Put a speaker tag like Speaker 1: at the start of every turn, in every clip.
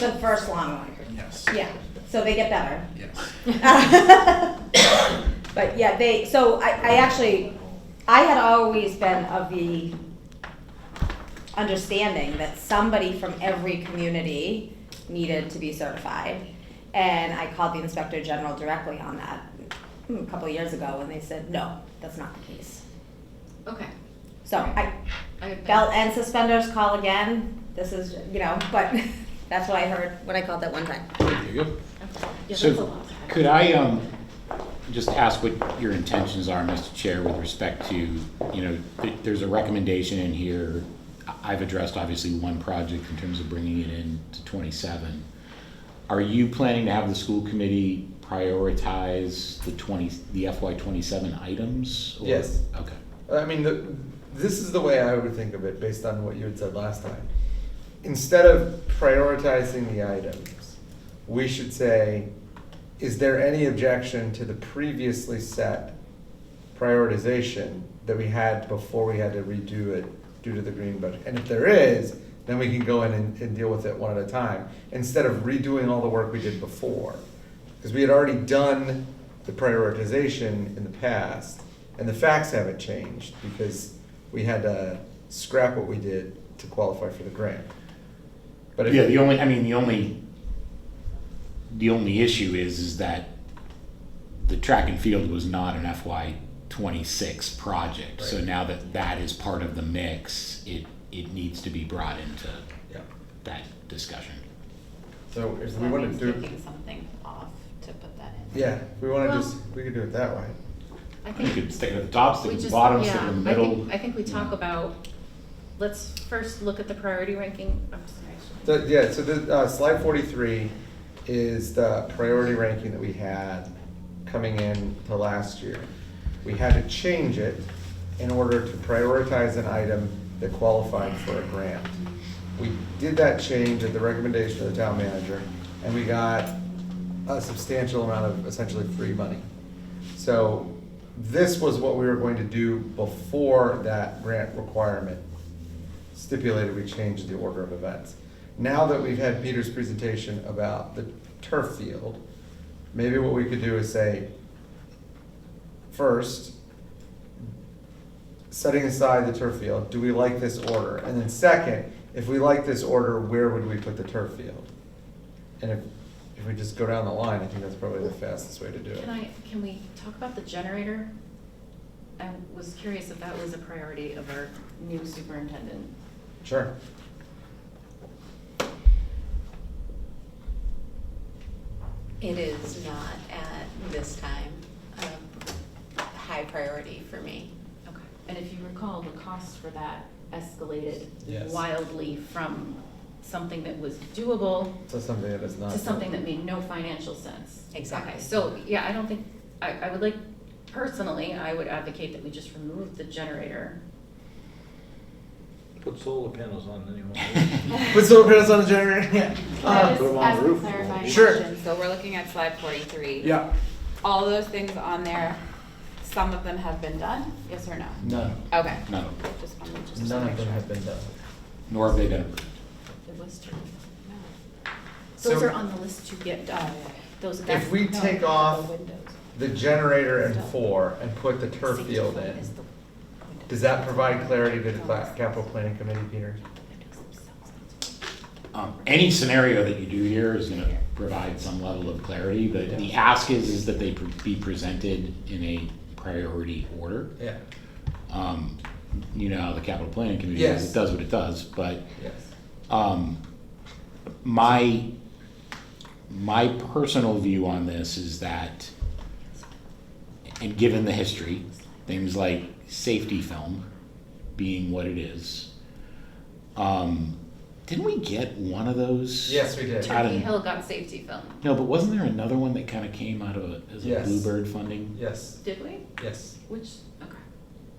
Speaker 1: The first lawn mower.
Speaker 2: Yes.
Speaker 1: Yeah, so they get better.
Speaker 2: Yes.
Speaker 1: But yeah, they, so I, I actually, I had always been of the understanding that somebody from every community needed to be certified. And I called the inspector general directly on that mm, a couple of years ago, and they said, no, that's not the case.
Speaker 3: Okay.
Speaker 1: So I,
Speaker 3: I have
Speaker 1: belt
Speaker 3: been,
Speaker 1: and suspenders, call again, this is, you know, but that's what I heard when I called that one time.
Speaker 4: There you go.
Speaker 3: yeah, that's a
Speaker 4: So,
Speaker 3: lot.
Speaker 4: could I, um, just ask what your intentions are, Mr. Chair, with respect to, you know, th- there's a recommendation in here. I- I've addressed obviously one project in terms of bringing it in to twenty-seven. Are you planning to have the school committee prioritize the twenty, the FY twenty-seven items? or-
Speaker 5: Yes.
Speaker 4: Okay.
Speaker 5: I mean, the, this is the way I would think of it based on what you had said last time. Instead of prioritizing the items, we should say, is there any objection to the previously set prioritization that we had before we had to redo it due to the green budget? And if there is, then we can go in and, and deal with it one at a time, instead of redoing all the work we did before. Because we had already done the prioritization in the past, and the facts haven't changed, because we had to scrap what we did to qualify for the grant. But if-
Speaker 4: Yeah, the only, I mean, the only, the only issue is, is that the track and field was not an FY twenty-six project. So
Speaker 5: Right.
Speaker 4: now that that is part of the mix, it, it needs to be brought into
Speaker 5: Yeah.
Speaker 4: that discussion.
Speaker 5: So if
Speaker 3: So
Speaker 5: we
Speaker 3: that
Speaker 5: want
Speaker 3: means
Speaker 5: to do, it,
Speaker 3: taking something off to put that in.
Speaker 5: yeah, if we want to
Speaker 3: Well-
Speaker 5: just, we could do it that way.
Speaker 3: I
Speaker 4: You
Speaker 3: think
Speaker 4: could stick it at the top,
Speaker 3: we
Speaker 4: stick it at the
Speaker 3: just,
Speaker 4: bottom, stick it
Speaker 3: yeah,
Speaker 4: in the
Speaker 3: I
Speaker 4: middle.
Speaker 3: think, I think we
Speaker 4: you
Speaker 3: talk
Speaker 4: know.
Speaker 3: about, let's first look at the priority ranking, I'm sorry.
Speaker 5: So, yeah, so the, uh, slide forty-three is the priority ranking that we had coming in to last year. We had to change it in order to prioritize an item that qualified for a grant. We did that change at the recommendation of the town manager, and we got a substantial amount of essentially free money. So this was what we were going to do before that grant requirement stipulated we change the order of events. Now that we've had Peter's presentation about the turf field, maybe what we could do is say, first, setting aside the turf field, do we like this order? And then second, if we like this order, where would we put the turf field? And if, if we just go down the line, I think that's probably the fastest way to do it.
Speaker 3: Can I, can we talk about the generator? I was curious if that was a priority of our new superintendent.
Speaker 5: Sure.
Speaker 6: It is not at this time a high priority for me.
Speaker 3: Okay. And if you recall, the cost for that escalated
Speaker 5: Yes.
Speaker 3: wildly from something that was doable
Speaker 5: So something that is not.
Speaker 3: to something that made no financial sense.
Speaker 6: Exactly.
Speaker 3: Okay, so, yeah, I don't think, I, I would like, personally, I would advocate that we just remove the generator.
Speaker 7: Put solar panels on anyway.
Speaker 5: Put solar panels on the generator, yeah.
Speaker 8: I
Speaker 5: Um,
Speaker 7: put
Speaker 8: just
Speaker 7: 'em on the
Speaker 8: ask a
Speaker 7: roof.
Speaker 8: clarifying
Speaker 5: Sure.
Speaker 8: question. So we're looking at slide forty-three.
Speaker 5: Yeah.
Speaker 8: All those things on there, some of them have been done, yes or no?
Speaker 5: None.
Speaker 8: Okay.
Speaker 4: No,
Speaker 8: Just wanted to just
Speaker 5: None
Speaker 8: make
Speaker 5: of them
Speaker 8: sure.
Speaker 5: have been done.
Speaker 4: nor have they been approved.
Speaker 3: It was true.
Speaker 5: So-
Speaker 3: Those are on the list to get done, those. that's-
Speaker 5: If we
Speaker 3: no,
Speaker 5: take
Speaker 3: the
Speaker 5: off
Speaker 3: windows.
Speaker 5: the generator and four and put the turf field in, does that provide clarity to the cla- capital planning committee, Peter?
Speaker 4: Um, any scenario that you do here is gonna provide some level of clarity, but the ask is, is that they pre- be presented in a priority order.
Speaker 5: Yeah,
Speaker 4: um, you know, how the capital planning committee
Speaker 5: Yes.
Speaker 4: is, it does what it does, but,
Speaker 5: yes.
Speaker 4: um, my, my personal view on this is that, and given the history, things like safety film being what it is, um, didn't we get one of those?
Speaker 5: Yes, we did.
Speaker 4: Out
Speaker 3: Turkey
Speaker 4: of,
Speaker 3: Hill got safety film,
Speaker 4: no, but wasn't there another one that kind of came out of, as a
Speaker 5: Yes.
Speaker 4: Bluebird funding?
Speaker 5: Yes,
Speaker 3: did we?
Speaker 5: yes.
Speaker 3: Which, okay,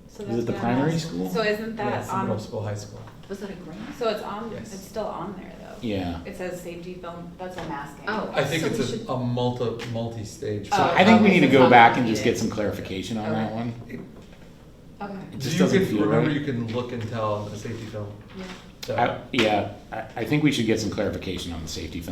Speaker 8: So
Speaker 4: Is
Speaker 8: that's
Speaker 4: it the
Speaker 8: gonna
Speaker 4: primary
Speaker 8: ask-
Speaker 4: school?
Speaker 8: So isn't that
Speaker 5: Yes,
Speaker 3: um,
Speaker 5: in middle
Speaker 8: on,
Speaker 5: school, high school.
Speaker 3: was that a grant?
Speaker 8: so it's on,
Speaker 5: Yes.
Speaker 8: it's still on there though?
Speaker 4: Yeah.
Speaker 8: It says safety film, that's what I'm asking.
Speaker 3: Oh.
Speaker 5: I think
Speaker 3: So we
Speaker 5: it's
Speaker 3: should- Oh,
Speaker 5: a, a multi, multi-stage.
Speaker 8: So
Speaker 4: I think we need to go back and just
Speaker 8: Okay.
Speaker 4: get some clarification on that one.
Speaker 8: Okay.
Speaker 4: It
Speaker 5: Do
Speaker 4: just
Speaker 5: you
Speaker 4: doesn't
Speaker 5: can,
Speaker 4: feel
Speaker 5: remember you
Speaker 4: right.
Speaker 5: can look and tell the safety film?
Speaker 3: Yeah.
Speaker 5: So-
Speaker 4: I- Yeah, I, I think we should get some clarification on the safety film.